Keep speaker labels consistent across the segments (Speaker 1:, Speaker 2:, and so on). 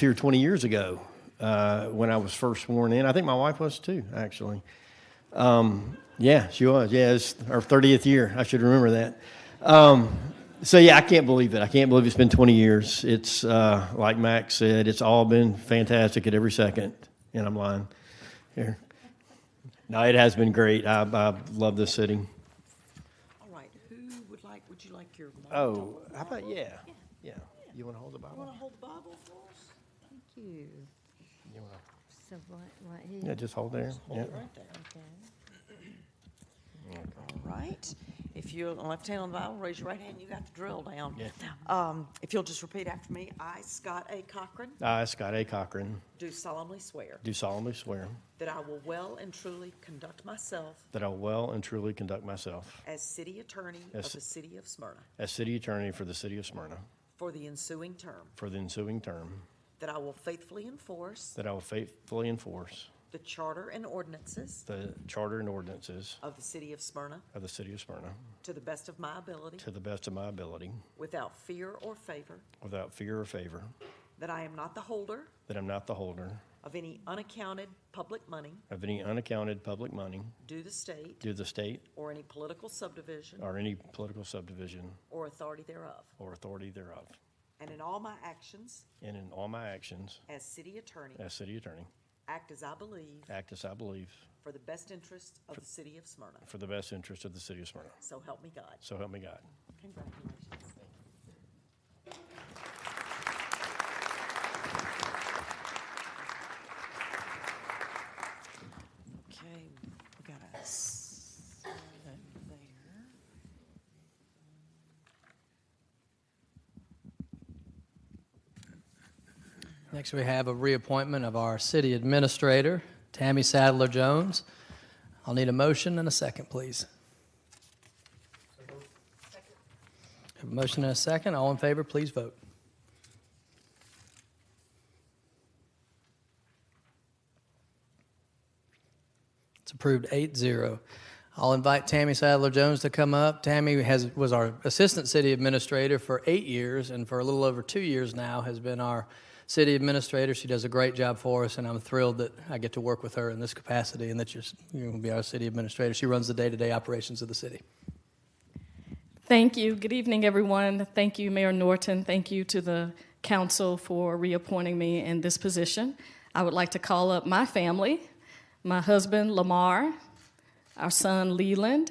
Speaker 1: here 20 years ago uh, when I was first sworn in. I think my wife was too, actually. Um, yeah, she was. Yeah, it's our 30th year. I should remember that. Um, so yeah, I can't believe it. I can't believe it's been 20 years. It's uh, like Max said, it's all been fantastic at every second. And I'm lying here. No, it has been great. I, I love this city.
Speaker 2: All right, who would like, would you like your? mom to-
Speaker 1: Oh, how about yeah, yeah. You want to hold the
Speaker 2: You want
Speaker 1: Bible?
Speaker 2: to hold the Bible for us?
Speaker 3: Thank you.
Speaker 1: You wanna-
Speaker 3: So right, right
Speaker 1: Yeah,
Speaker 3: here.
Speaker 1: just hold there.
Speaker 2: Hold
Speaker 1: Yeah.
Speaker 2: it right there.
Speaker 3: Okay.
Speaker 2: All right. If you'll, left hand on the Bible, raise your right hand, you got the drill down.
Speaker 1: Yeah.
Speaker 2: Um, If you'll just repeat after me, I, Scott A. Cochran,
Speaker 1: I, Scott A. Cochran,
Speaker 2: do solemnly swear
Speaker 1: do solemnly swear
Speaker 2: that I will well and truly conduct myself
Speaker 1: that I will well and truly conduct myself
Speaker 2: as city attorney of
Speaker 1: As-
Speaker 2: the city of Smyrna
Speaker 1: as city attorney for the city of Smyrna
Speaker 2: for the ensuing term,
Speaker 1: for the ensuing term,
Speaker 2: that I will faithfully enforce
Speaker 1: that I will faithfully enforce
Speaker 2: the charter and ordinances
Speaker 1: the charter and ordinances
Speaker 2: of the city of Smyrna
Speaker 1: of the city of Smyrna
Speaker 2: to the best of my ability,
Speaker 1: to the best of my ability,
Speaker 2: without fear or favor,
Speaker 1: without fear or favor,
Speaker 2: that I am not the holder
Speaker 1: that I'm not the holder
Speaker 2: of any unaccounted public money
Speaker 1: of any unaccounted public money
Speaker 2: due the state
Speaker 1: due to the state
Speaker 2: or any political subdivision
Speaker 1: or any political subdivision
Speaker 2: or authority thereof,
Speaker 1: or authority thereof,
Speaker 2: and in all my actions
Speaker 1: and in all my actions
Speaker 2: as city attorney,
Speaker 1: as city attorney,
Speaker 2: act as I believe
Speaker 1: act as I believe
Speaker 2: for the best interests of the city of Smyrna.
Speaker 1: for the best interest of the city of Smyrna.
Speaker 2: So help me God.
Speaker 1: So help me God.
Speaker 2: Congratulations. Okay, we got a s- there.
Speaker 4: Next, we have a reappointment of our city administrator, Tammy Sadler Jones. I'll need a motion and a second, please. Have a motion and a second. All in favor, please vote. It's approved 8-0. I'll invite Tammy Sadler Jones to come up. Tammy has was our assistant city administrator for eight years, and for a little over two years now has been our city administrator. She does a great job for us, and I'm thrilled that I get to work with her in this capacity, and that you're, you're going to be our city administrator. She runs the day-to-day operations of the city.
Speaker 5: Thank you. Good evening, everyone. Thank you, Mayor Norton. Thank you to the council for reappointing me in this position. I would like to call up my family, my husband, Lamar, our son, Leland,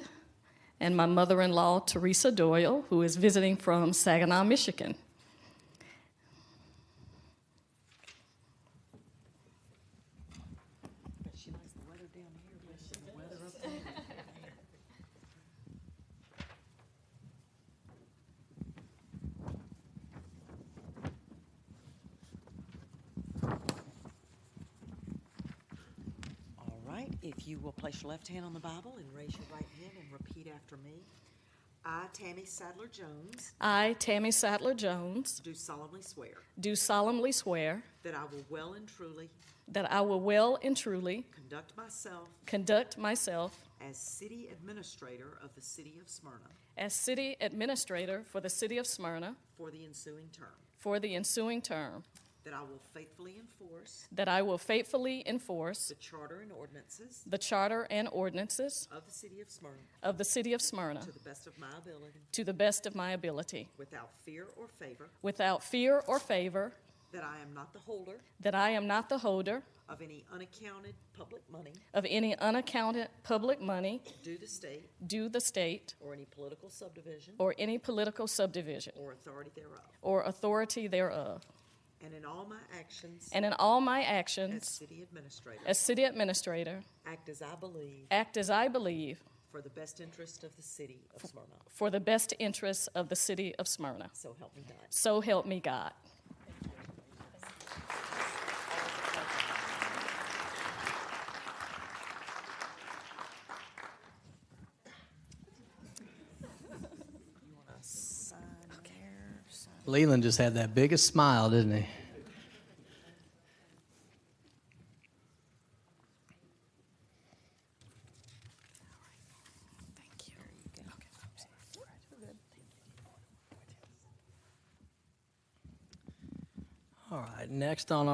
Speaker 5: and my mother-in-law, Teresa Doyle, who is visiting from Saginaw, Michigan.
Speaker 2: Bet she likes the weather down here, but she the weather up there. All right, if you will place your left hand on the Bible and raise your right hand and repeat after me. I, Tammy Sadler Jones,
Speaker 5: I, Tammy Sadler Jones,
Speaker 2: do solemnly swear
Speaker 5: do solemnly swear
Speaker 2: that I will well and truly
Speaker 5: that I will well and truly
Speaker 2: conduct myself
Speaker 5: conduct myself
Speaker 2: as city administrator of the city of Smyrna
Speaker 5: as city administrator for the city of Smyrna
Speaker 2: for the ensuing term,
Speaker 5: for the ensuing term,
Speaker 2: that I will faithfully enforce
Speaker 5: that I will faithfully enforce
Speaker 2: the charter and ordinances
Speaker 5: the charter and ordinances
Speaker 2: of the city of Smyrna
Speaker 5: of the city of Smyrna
Speaker 2: to the best of my ability,
Speaker 5: to the best of my ability,
Speaker 2: without fear or favor,
Speaker 5: without fear or favor,
Speaker 2: that I am not the holder
Speaker 5: that I am not the holder
Speaker 2: of any unaccounted public money
Speaker 5: of any unaccounted public money
Speaker 2: due to state
Speaker 5: due the state
Speaker 2: or any political subdivision
Speaker 5: or any political subdivision
Speaker 2: or authority thereof,
Speaker 5: or authority thereof,
Speaker 2: and in all my actions
Speaker 5: and in all my
Speaker 2: as
Speaker 5: actions
Speaker 2: city administrator,
Speaker 5: as city administrator,
Speaker 2: act as I believe
Speaker 5: act as I believe
Speaker 2: for the best interest of the city of Smyrna.
Speaker 5: for the best interests of the city of Smyrna.
Speaker 2: So help me God.
Speaker 5: So help me God.
Speaker 2: Sign there, sign
Speaker 4: Leland just had that biggest smile, didn't he?
Speaker 2: Thank you.
Speaker 4: All All right, next on